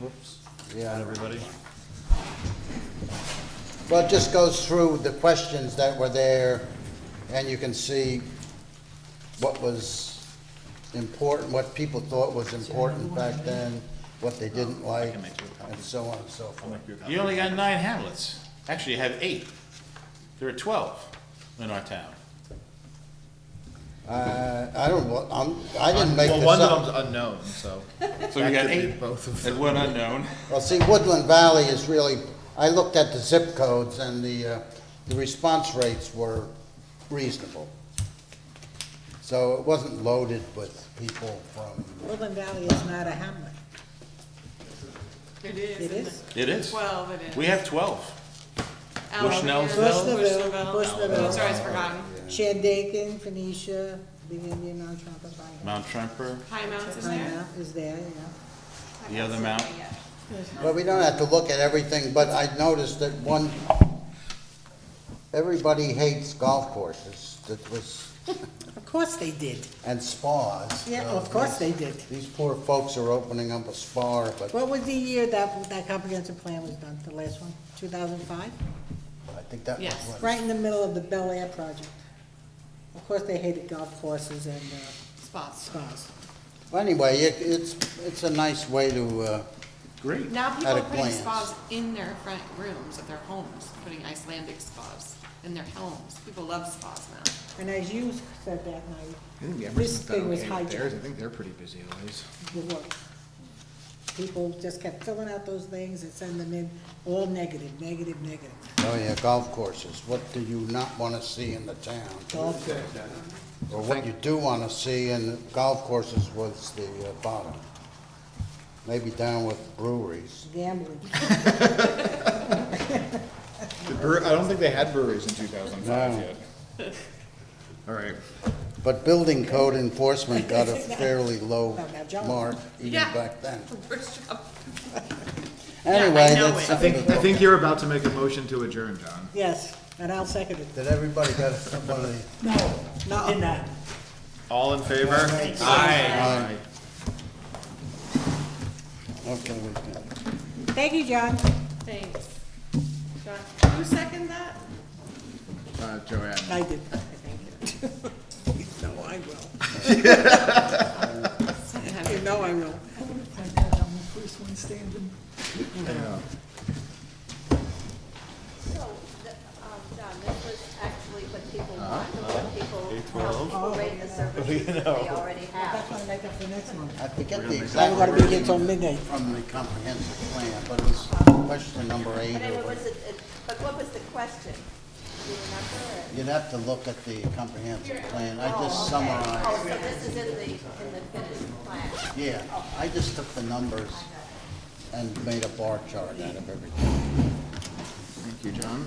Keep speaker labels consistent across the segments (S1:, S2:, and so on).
S1: Whoops,
S2: Yeah.
S1: not everybody.
S2: Well, it just goes through the questions that were there, and you can see what was important, what people thought was important back then, what they didn't like,
S1: make you a copy.
S2: and so on and so
S1: I'll
S2: forth.
S1: make you a copy.
S3: You only got nine hamlets. Actually, you have eight. There are twelve in our town.
S2: Uh, I don't, wa- I'm, I didn't make
S1: Well,
S2: this
S1: one of
S2: up.
S1: them's unknown, so.
S3: So you
S1: That
S3: got
S1: could be
S3: eight
S1: Both of them.
S3: and one unknown.
S2: Well, see, Woodland Valley is really, I looked at the zip codes, and the, uh, the response rates were reasonable. So it wasn't loaded with people from,
S4: Woodland Valley is not a hamlet.
S5: It is.
S4: It
S5: isn't
S4: is?
S3: It is.
S5: Twelve it is.
S3: We have twelve.
S5: Alabama,
S3: Bushnellsville?
S5: Bushnellville.
S4: Bushnellville.
S5: Oh, It's always forgotten.
S4: Shandaken, Phoenicia, Big Indian, Mount Trumpet,
S3: Mount Tremper,
S5: High Mounts is
S4: Pine
S5: there?
S4: Mountain is there, yeah.
S3: the other mount.
S2: Well, we don't have to look at everything, but I noticed that one, everybody hates golf courses, that was,
S4: Of course they did.
S2: and spas.
S4: Oh, Yeah, of course they did.
S2: These poor folks are opening up a spa, but
S4: What was the year that, that comprehensive plan was done, the last one, two thousand five?
S2: I think that was
S5: Yes.
S2: what.
S4: Right in the middle of the Bel Air project. Of course, they hated golf courses and, uh,
S5: Spots.
S4: spas.
S2: Well, Anyway, it, it's, it's a nice way to, uh,
S3: Great.
S5: Now people
S2: At a
S5: are putting
S2: glance.
S5: spas in their front rooms of their homes, putting Icelandic spas in their homes. People love spas now.
S4: And as you said that night,
S6: I think the
S4: This
S6: Emerson's
S4: thing
S6: done
S4: was
S6: okay with
S4: hijacked.
S6: theirs. I think they're pretty busy always.
S4: the work. People just kept filling out those things and sending them in, all negative, negative, negative.
S2: oh yeah, golf courses. What do you not wanna see in the town?
S4: Golf course.
S2: Or what you do wanna see in golf courses was the uh, bottom. Maybe down with breweries.
S4: Gambling.
S6: The brewer, I don't think they had breweries in two thousand five
S2: No.
S6: yet. All right.
S2: But building code enforcement got a fairly low
S4: Oh, now John.
S2: mark even
S5: Yeah.
S2: back then.
S5: First job.
S2: Anyway,
S5: know
S2: that's
S5: it.
S6: I think,
S2: something.
S6: I think you're about to make a motion to adjourn, John.
S4: Yes, and I'll second it.
S2: Did everybody got somebody?
S4: No, no.
S6: All in favor? Aye.
S2: Okay, we can.
S4: Thank you, John.
S5: Thanks. John, who seconded that?
S6: Uh, Joanne.
S4: I did.
S5: Okay, thank you.
S4: No, I will.
S5: Sometimes
S4: You know I will.
S7: So, the- um, John, this was actually what people want, and what people um, rate the services that they already have.
S4: That's why I make up the next one.
S2: I forget the
S4: I'm
S2: exact
S4: gonna be
S2: word
S4: here till midnight.
S2: from the comprehensive plan, but it was question number eight or
S7: But anyway,
S2: whatever.
S7: was it, it- but what was the question? Do you remember? or-
S2: You'd have to look at the comprehensive plan. I just summarized,
S7: Oh, so this is in the, in the finished plan.
S2: yeah. I just took the numbers and made a bar chart out of everything.
S6: Thank you, John.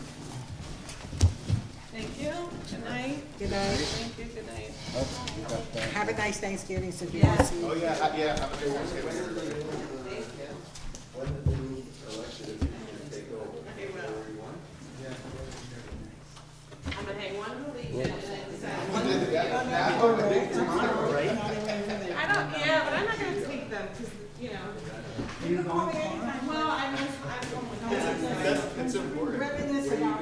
S5: Thank you. Good night.
S4: Good night.
S5: Thank you. Good night.
S2: Oh, you got that.
S4: Have a nice Thanksgiving, so if you don't see.
S6: yeah, yeah, I'm okay with
S5: I'm gonna hang one of these and then decide. I don't, yeah, but I'm not gonna take them, cause, you know. You can call me anytime. Well, I miss, I'm going. That's, that's important. Reminisce about.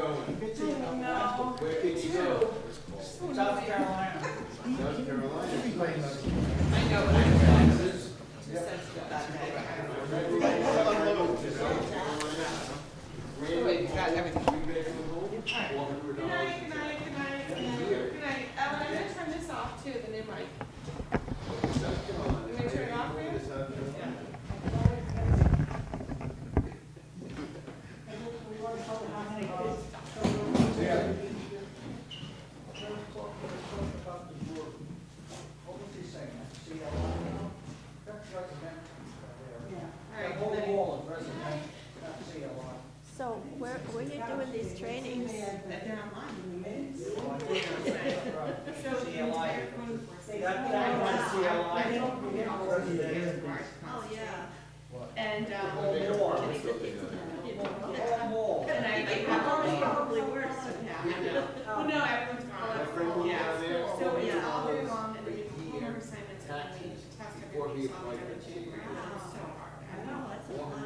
S5: No. Two. South Carolina. I know, but I'm. Just says that day. Wait, you got everything. Good night, good night, good night, good night, good night. Ellen, I'm gonna turn this off too, the new mic. Can we turn it off for you? All right, good night.
S7: So, where, where you doing these trainings?
S5: So the entire code enforcement. Oh, yeah. And, um. And I think that was probably worse than that. Well, no, everyone's gone. Yeah. So it's all day long and then you perform assignments and then you test everything. so it's gonna change around. So, I don't know, that's a lot.